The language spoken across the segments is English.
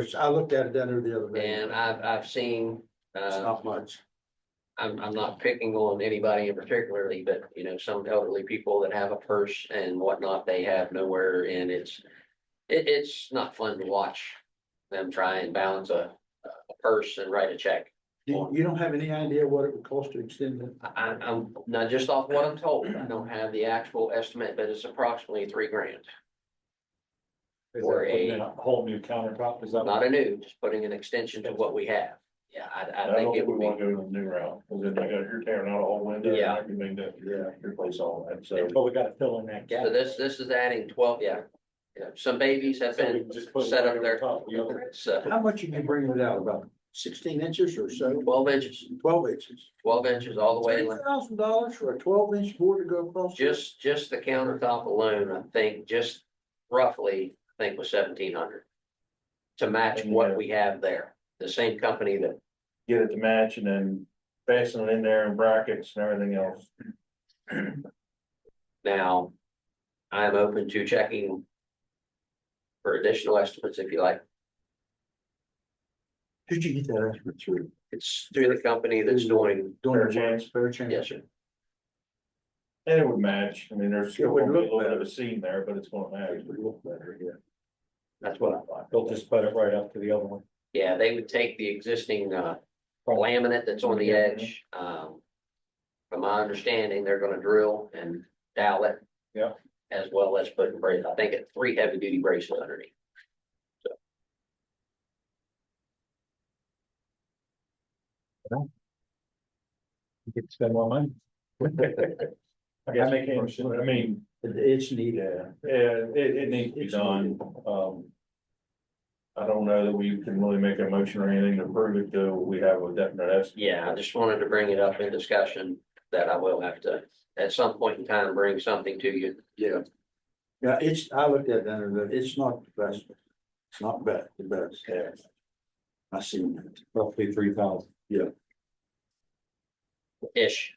Which I looked at it down there the other day. And uh, I've, I've seen, It's uh, not much. I'm, I'm not picking on anybody in particularly, but you know, some elderly people that have a purse and whatnot, they have nowhere and it's. It, it's not fun to watch them try and balance a, a purse and write a check. You, you don't have any idea what it would cost to extend it? I, I'm- I'm, not just off what I'm told, I don't have the actual estimate, but it's approximately three grand. Is Or that putting a- in a whole new countertop? Is that? Not a new, just putting an extension to what we have. Yeah, I, I I don't think it think we would want be, to go to the new route, because then I got, you're tearing out a whole window Yeah. and everything to Yeah. replace all that, so. But we gotta fill in that gap. so this, this is adding twelve, yeah. Yeah, some babies have So we been can just put it set right up over there. top of the other. So How much are you bringing it out? About sixteen inches or so, twelve inches, twelve inches? twelve inches all the way, Three in. thousand dollars for a twelve inch board to go across? just, just the countertop alone, I think, just roughly, I think was seventeen hundred. To match what we have there, the same company that, Get it to match and then fasten it in there and brackets and everything else. now, I'm open to checking. For additional estimates if you like, Did you get that estimate through? it's through the company that's doing, Doing the Fairchance. works, fair chance? yes, sir, And it would match, I mean, It there's still would gonna be a look little bit of a better. seam there, but it's gonna match. It would look better, yeah. that's what I thought. They'll just put it right up to the other one. Yeah, they would take the existing uh laminate that's on the edge, um. From my understanding, they're gonna drill and dowel it. Yeah. As well as putting braces, I think it's three heavy duty braces underneath. You could spend more money. I guess we can, I mean, It- It's needed. yeah, yeah, it, it needs to be done, um. I don't know that we can really make a motion or anything to prove it, though, we have a definite estimate. Yeah, I just wanted to bring it up in discussion that I will have to, at some point in time, bring something to you. Yeah. Yeah, it's, I looked at it down there, it's not the best. It's not bad, the best. Yeah. I seen that. Roughly three thousand. Ish,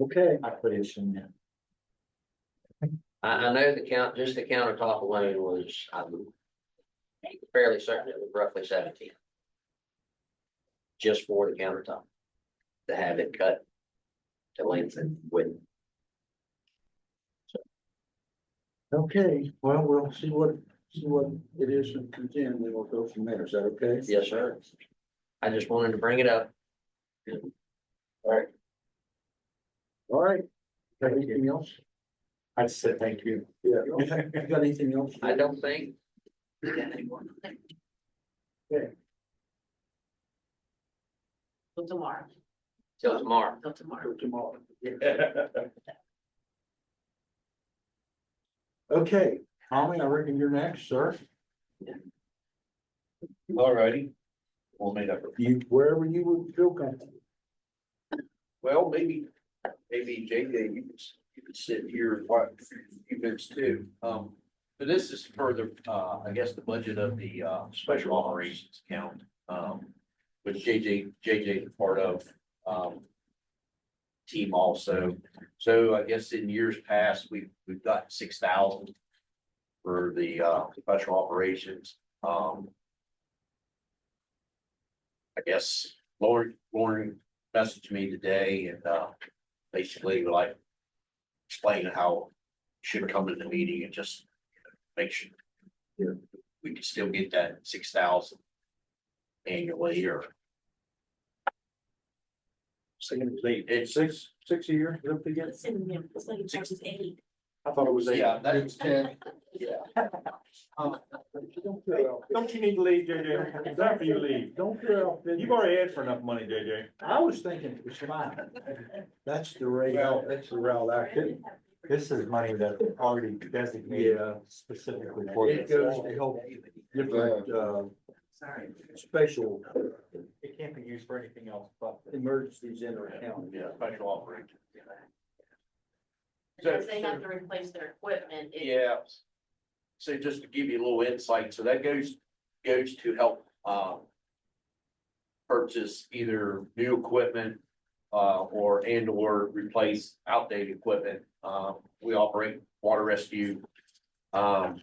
Okay. I put it in there. I I know the count, just the countertop alone was, I'm. Fairly certain it was roughly seventeen. Just for the countertop. To have it cut. To length and width. Okay, well, we'll see what, see what it is and contend, then we'll go from there. Is that okay? Yes, sir. I just wanted to bring it up. All right. Got anything else? I'd say thank you. Yeah. You got anything else? I don't think. Till tomorrow, Till tomorrow. till tomorrow. Tomorrow. Okay, Tommy, I reckon you're next, sir. Alrighty. We'll meet up. You, wherever you would feel comfortable. Well, maybe, maybe JJ, you could, s- you could sit here and watch events too. Um, but this is further, uh, I guess, the budget of the, uh, special operations account, um, which JJ, JJ is part of, um, team also. So I guess in years past, we've, we've got six thousand for the, uh, special operations, um. I guess Lauren, Lauren messaged me today and, uh, basically like explaining how should come to the meeting and just make sure we can still get that six thousand annually or It's six, six a year, don't forget. It's in the, it's like it's just eight. I thought it was eight. Yeah, that is ten. Um, Don't feel out- Don't you need to leave, JJ? It's time for you to leave. Don't feel. out- You've already asked for enough money, JJ. I was thinking it was mine. That's the rate, Well- that's the route I could. This is money that already designated Yeah. specifically for It this. goes to help different, uh, Sorry. special It can't be used for anything else but. emergencies in our county. Yeah, special operation. Because they have to replace their equipment. it- Yeah. So just to give you a little insight, so that goes, goes to help, um. Purchase either new equipment, uh, or and or Uh, replace outdated equipment. Um, we operate water rescue. Um,